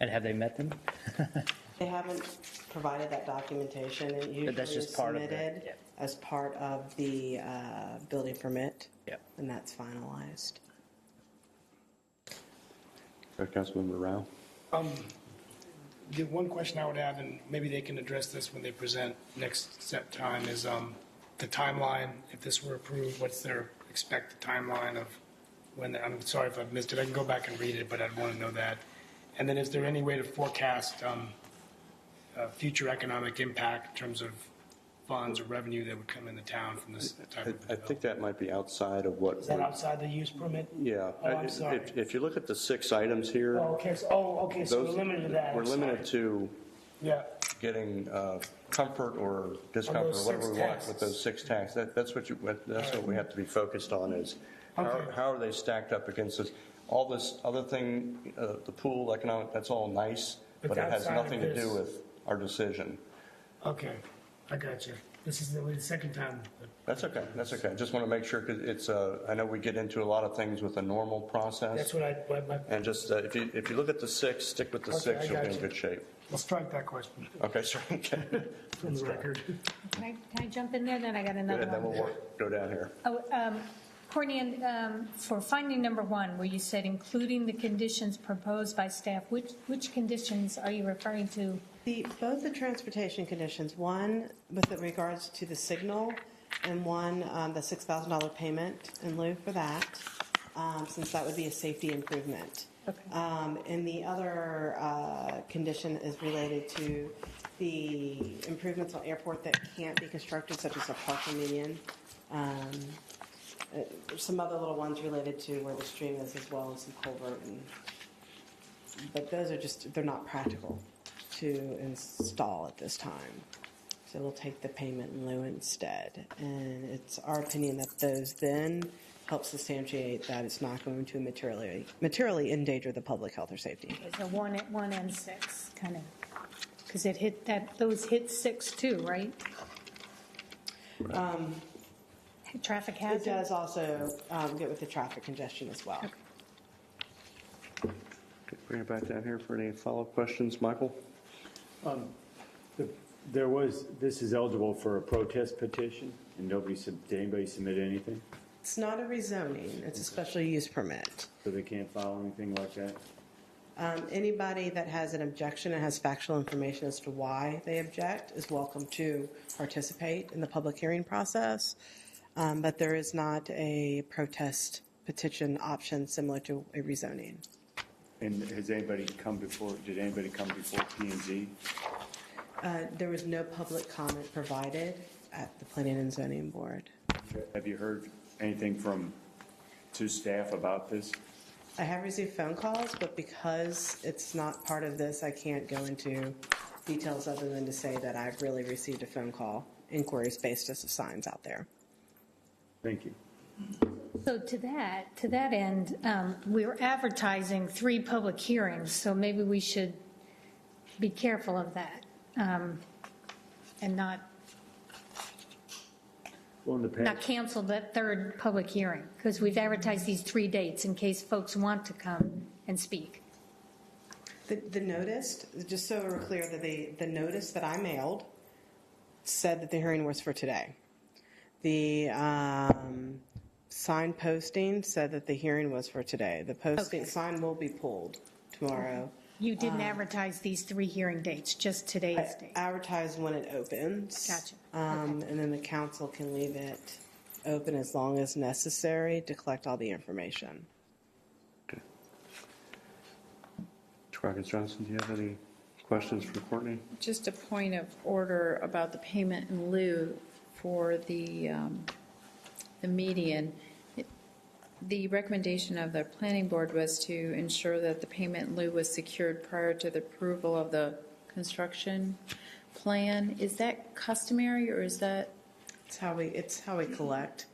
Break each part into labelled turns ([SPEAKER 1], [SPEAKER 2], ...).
[SPEAKER 1] And have they met them?
[SPEAKER 2] They haven't provided that documentation. It usually
[SPEAKER 1] that's
[SPEAKER 2] is
[SPEAKER 1] just part of the-
[SPEAKER 2] submitted
[SPEAKER 1] yeah.
[SPEAKER 2] as part of the uh, building permit,
[SPEAKER 1] Yeah.
[SPEAKER 2] and that's finalized.
[SPEAKER 3] Uh, Councilmember Rao?
[SPEAKER 4] The one question I would have, and maybe they can address this when they present next step time, is um, the timeline. If this were approved, what's their expected timeline of when, I'm sorry if I've missed it, I can go back and read it, but I'd want to know that. And then is there any way to forecast um, uh, future economic impact in terms of funds or revenue that would come in the town from this type
[SPEAKER 3] I
[SPEAKER 4] of
[SPEAKER 3] I think
[SPEAKER 4] development?
[SPEAKER 3] that might be outside of what.
[SPEAKER 4] Is that
[SPEAKER 3] we're-
[SPEAKER 4] outside the use permit?
[SPEAKER 3] Yeah.
[SPEAKER 4] Oh,
[SPEAKER 3] I-
[SPEAKER 4] I'm sorry.
[SPEAKER 3] If, if you look at the six items here.
[SPEAKER 4] Oh, okay, so, oh, okay, so we're
[SPEAKER 3] those-
[SPEAKER 4] limited to that.
[SPEAKER 3] We're
[SPEAKER 4] I'm sorry.
[SPEAKER 3] limited to
[SPEAKER 4] Yeah,
[SPEAKER 3] getting uh, comfort or discomfort, or
[SPEAKER 4] those
[SPEAKER 3] whatever
[SPEAKER 4] six
[SPEAKER 3] we want with
[SPEAKER 4] tasks.
[SPEAKER 3] those six tasks. That, that's what you, what- that's what we have to be focused on is, how,
[SPEAKER 4] Okay.
[SPEAKER 3] how are they stacked up against this? All this other thing, uh, the pool, economic, that's all nice,
[SPEAKER 4] But
[SPEAKER 3] but it has
[SPEAKER 4] outside of
[SPEAKER 3] nothing to do
[SPEAKER 4] this-
[SPEAKER 3] with our decision.
[SPEAKER 4] okay, I got you. This is the second time.
[SPEAKER 3] That's okay, that's okay. I Just want to make sure, because it's, uh, I know we get into a lot of things with the normal
[SPEAKER 4] That's
[SPEAKER 3] process.
[SPEAKER 4] what I, what my,
[SPEAKER 3] And just, uh, if you, if you look at the six, stick with the
[SPEAKER 4] Okay,
[SPEAKER 3] six,
[SPEAKER 4] I
[SPEAKER 3] you'll be
[SPEAKER 4] got
[SPEAKER 3] in
[SPEAKER 4] you.
[SPEAKER 3] good shape.
[SPEAKER 4] I'll strike that question
[SPEAKER 3] Okay, sure. Okay.
[SPEAKER 4] from the record.
[SPEAKER 5] Can I- can I jump in there, then I got another
[SPEAKER 3] And then we'll
[SPEAKER 5] one?
[SPEAKER 3] work, go down here.
[SPEAKER 5] Oh, um, Courtney, and, um, for finding number one, where you said including the conditions proposed by staff, which, which conditions are you referring to?
[SPEAKER 2] The, both the transportation conditions, one with regards to the signal and one, um, the $6,000 payment in lieu for that, um, since that would be a safety improvement.
[SPEAKER 5] Okay.
[SPEAKER 2] Um, And the other uh, condition is related to the improvements on airport that can't be constructed, such as a parking median. Um, uh, Some other little ones related to where the stream is as well, and some culvert and but those are just, they're not practical to install at this time. So we'll take the payment in lieu instead. And it's our opinion that those then help substantiate that it's not going to materially, materially endanger the public health or safety.
[SPEAKER 5] Is a one, at one and six, kind of? Because it hit, that, those hit six too, right? Um, Traffic
[SPEAKER 2] It
[SPEAKER 5] hazard?
[SPEAKER 2] does also um, get with the traffic congestion as well.
[SPEAKER 3] Bring it back down here for any follow-up questions, Michael?
[SPEAKER 6] There was, this is eligible for a protest petition, and nobody, sub- did anybody submit anything?
[SPEAKER 2] It's not a rezoning, it's a special use permit.
[SPEAKER 6] So they can't file anything like that?
[SPEAKER 2] Um, Anybody that has an objection and has factual information as to why they object is welcome to participate in the public hearing process. Um, But there is not a protest petition option similar to a rezoning.
[SPEAKER 6] And has anybody come before, did anybody come before P and Z?
[SPEAKER 2] Uh, There was no public comment provided at the Planning and Zoning Board.
[SPEAKER 6] Have you heard anything from, to staff about this?
[SPEAKER 2] I have received phone calls, but because it's not part of this, I can't go into details other than to say that I've really received a phone call, inquiries based as of signs out there.
[SPEAKER 6] Thank you.
[SPEAKER 5] So to that, to that end, um, we're advertising three public hearings, so maybe we should be careful of that um, and not,
[SPEAKER 6] Well, in the
[SPEAKER 5] not
[SPEAKER 6] past,
[SPEAKER 5] cancel that third public hearing, because we've advertised these three dates in case folks want to come and speak.
[SPEAKER 2] The, the notice, just so we're clear, that the, the notice that I mailed said that the hearing was for today. The um, sign posting said that the hearing was for today. The posting,
[SPEAKER 5] Okay.
[SPEAKER 2] sign will be pulled tomorrow.
[SPEAKER 5] You didn't advertise these three hearing dates, just
[SPEAKER 2] I
[SPEAKER 5] today's date.
[SPEAKER 2] advertise when it opens.
[SPEAKER 5] Gotcha.
[SPEAKER 2] Um, And then the council can leave it open as long as necessary to collect all the information.
[SPEAKER 3] Travis Johnson, do you have any questions for Courtney?
[SPEAKER 7] Just a point of order about the payment in lieu for the, um, the median. The recommendation of the planning board was to ensure that the payment in lieu was secured prior to the approval of the construction plan. Is that customary, or is that,
[SPEAKER 2] It's how we, it's how we collect.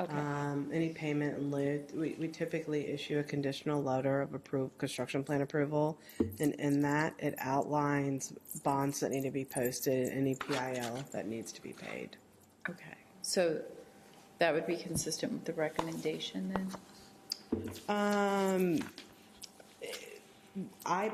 [SPEAKER 7] Okay.
[SPEAKER 2] Um, any payment in lieu, we, we typically issue a conditional letter of approval, construction plan approval. And in that, it outlines bonds that need to be posted, and any PIL that needs to be paid.
[SPEAKER 7] okay, so that would be consistent with the recommendation, then?
[SPEAKER 2] Um, I